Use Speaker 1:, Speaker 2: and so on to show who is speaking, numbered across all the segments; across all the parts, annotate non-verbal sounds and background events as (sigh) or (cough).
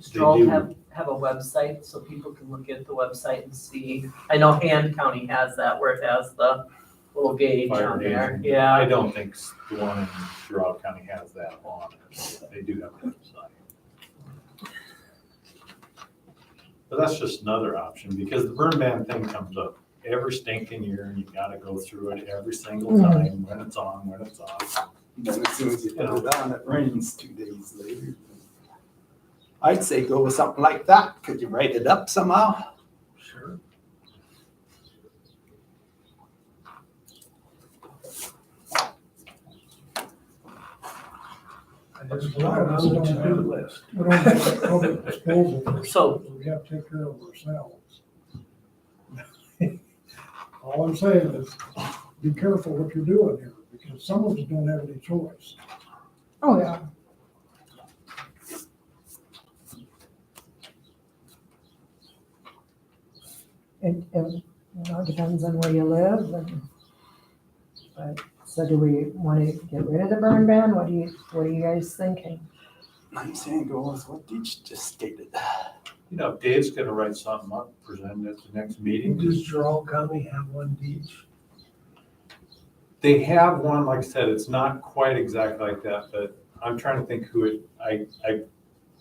Speaker 1: Stroll
Speaker 2: do.
Speaker 1: have, have a website so people can look at the website and see? I know Hand County has that where it has the little gauge
Speaker 2: Fire
Speaker 1: on there,
Speaker 2: gauge. I
Speaker 1: yeah.
Speaker 2: don't think the one in Gerard County has that on it. They do have a website. But that's just another option because the burn ban thing comes up every stinking year and you gotta go through it every single time when it's on, when it's off.
Speaker 3: (laughs)
Speaker 4: Then as soon as you put it on, it rains two days later. I'd say go with something like that. Could you write it up somehow?
Speaker 2: Sure.
Speaker 3: There's a lot of those on the to-do
Speaker 5: list.
Speaker 3: We don't have public disposal, of
Speaker 1: So,
Speaker 3: ourselves. we have to take care of ourselves. All I'm saying is, be careful what you're doing here, because some of us don't have any choice.
Speaker 6: Oh, yeah. It, it, you know, depends on where you live and, but, so do we want to get rid of the burn ban? What do you, what are you guys thinking?
Speaker 4: I'm saying go with what Deech just stated.
Speaker 2: You know, if Dave's gonna write something up, present it at the next meeting.
Speaker 5: Does Gerald County have one beach?
Speaker 2: They have one, like I said, it's not quite exactly like that, but I'm trying to think who it, I, I,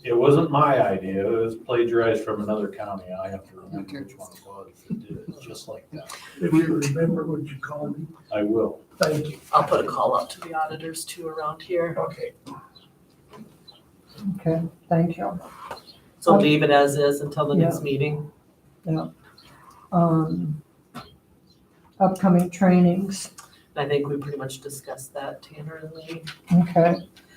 Speaker 2: it wasn't my idea, it was plagiarized from another county, I have to remember which one it was that did it, just like that.
Speaker 5: If you remember, would you call me?
Speaker 2: I will.
Speaker 5: Thank you.
Speaker 1: I'll put a call out to the auditors too around here.
Speaker 5: Okay.
Speaker 6: Okay, thank you.
Speaker 1: So leave it as is until the next meeting.
Speaker 6: Um, upcoming trainings,
Speaker 1: I think we pretty much discussed that, Tanner and Lee.
Speaker 6: okay.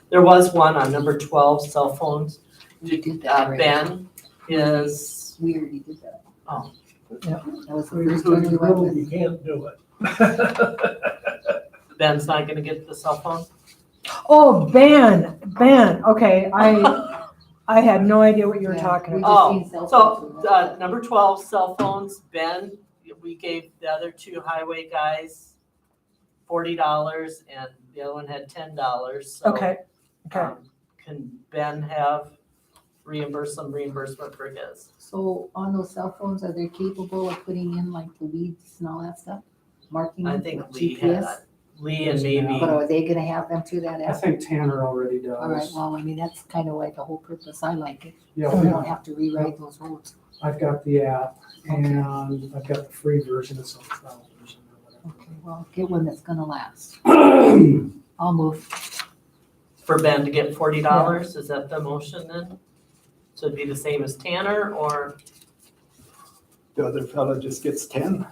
Speaker 1: There was one on number twelve, cell phones.
Speaker 7: We did that
Speaker 1: Uh,
Speaker 7: already.
Speaker 1: Ben is,
Speaker 7: We already did that.
Speaker 1: Oh.
Speaker 6: Yeah.
Speaker 7: That was the
Speaker 5: We just
Speaker 7: first
Speaker 5: told
Speaker 7: one we
Speaker 5: you,
Speaker 7: went
Speaker 5: no,
Speaker 7: with.
Speaker 5: you can't do it. (laughs)
Speaker 1: Ben's not gonna get the cell phone?
Speaker 6: Oh, ban, ban, okay, I, (laughs) I had no idea what you were
Speaker 7: Yeah,
Speaker 6: talking
Speaker 7: we
Speaker 6: about.
Speaker 1: Oh,
Speaker 7: just seen cell
Speaker 1: So,
Speaker 7: phones.
Speaker 1: uh, number twelve, cell phones, Ben, we gave the other two highway guys forty dollars and the other one had ten dollars, so.
Speaker 6: Okay, okay,
Speaker 1: um, Can Ben have reimburse some reimbursement for his?
Speaker 7: So on those cell phones, are they capable of putting in like the weeds and all that stuff? Marking
Speaker 1: I
Speaker 7: with
Speaker 1: think Lee had,
Speaker 7: GPS?
Speaker 1: Lee and maybe,
Speaker 7: But are they gonna have them through that
Speaker 5: I
Speaker 7: app?
Speaker 5: think Tanner already does.
Speaker 7: All right, well, um, I mean, that's kind of like the whole purpose. I like it.
Speaker 5: Yeah,
Speaker 7: So we
Speaker 5: we-
Speaker 7: don't have to rewrite those rules.
Speaker 5: I've got the app and I've got the free version, it's on trial version or whatever.
Speaker 7: Okay, well, get one that's gonna last. I'll move.
Speaker 1: for Ben to get forty dollars, is that the motion then? So it'd be the same as Tanner or,
Speaker 4: The other fellow just gets ten.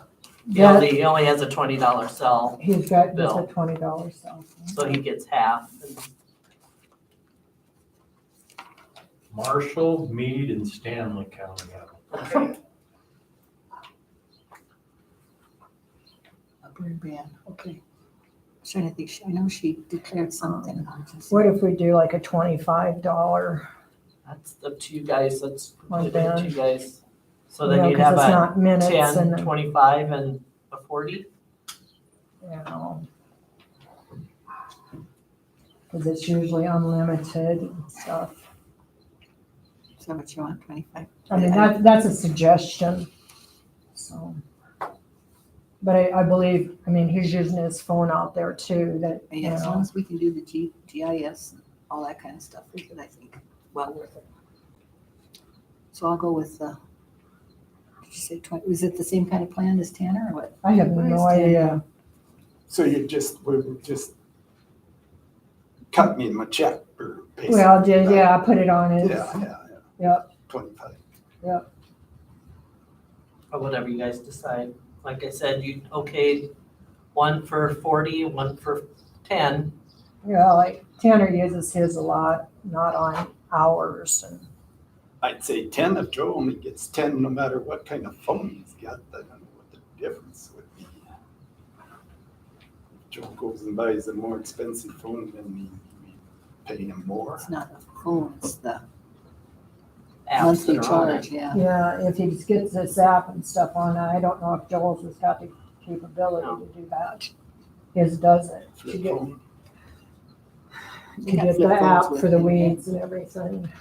Speaker 1: he only,
Speaker 6: yeah,
Speaker 1: he only has a twenty dollar cell,
Speaker 6: he's got just
Speaker 1: Bill.
Speaker 6: a twenty dollar cell.
Speaker 1: so he gets half.
Speaker 2: Marshall, Meade, and Stanley County have them.
Speaker 7: A burn ban, okay. Trying to think, She- I know she declared something. I just-
Speaker 6: What if we do like a twenty-five dollar?
Speaker 1: That's up to you guys, that's
Speaker 6: One
Speaker 1: completely up to you guys. So
Speaker 6: you
Speaker 1: then
Speaker 6: know,
Speaker 1: you'd
Speaker 6: 'cause
Speaker 1: have
Speaker 6: it's
Speaker 1: a
Speaker 6: not Minutes and,
Speaker 1: ten,
Speaker 6: then,
Speaker 1: twenty-five, and a forty?
Speaker 6: you know. Cause it's usually unlimited and stuff.
Speaker 7: Is that what you want, twenty-five?
Speaker 6: I mean, that, that's a suggestion, so. But I, I believe, I mean, he's using his phone out there too, that, you
Speaker 7: Yeah, as long
Speaker 6: know,
Speaker 7: as we can do the G, GIS, and all that kind of stuff, we could, I think, well worth it. So I'll go with, uh, did you say twenty, was it the same kind of plan as Tanner or what?
Speaker 6: I have
Speaker 7: What is
Speaker 6: no
Speaker 7: ten?
Speaker 6: idea.
Speaker 4: So you just, we would just cut me my check or pay.
Speaker 6: Well,
Speaker 4: something
Speaker 6: did,
Speaker 4: back.
Speaker 6: yeah, I put it on his,
Speaker 4: Yeah, yeah, yeah.
Speaker 6: Yep.
Speaker 4: Twenty-five.
Speaker 1: Or whatever you guys decide. Like I said, you, okay, one for forty, one for ten.
Speaker 6: yeah, like Tanner uses his a lot, not on ours and.
Speaker 4: I'd say ten if Joe only gets ten, no matter what kind of phone he's got, I don't know what the difference would be. If Joe goes and buys a more expensive phone, then we, we pay him more.
Speaker 7: It's not a phone, it's the
Speaker 1: apps that
Speaker 7: monthly
Speaker 1: are on it.
Speaker 7: charge, yeah.
Speaker 6: Yeah, if he gets this app and stuff on, I don't know if Joel's has got the capability
Speaker 1: No.
Speaker 6: to do that. His doesn't,
Speaker 4: Flip
Speaker 6: to get,
Speaker 4: phone.
Speaker 7: You
Speaker 6: to
Speaker 7: got
Speaker 6: get
Speaker 7: flip
Speaker 6: the
Speaker 7: phones
Speaker 6: app
Speaker 7: with
Speaker 6: for the
Speaker 7: internet.
Speaker 6: weeds and everything.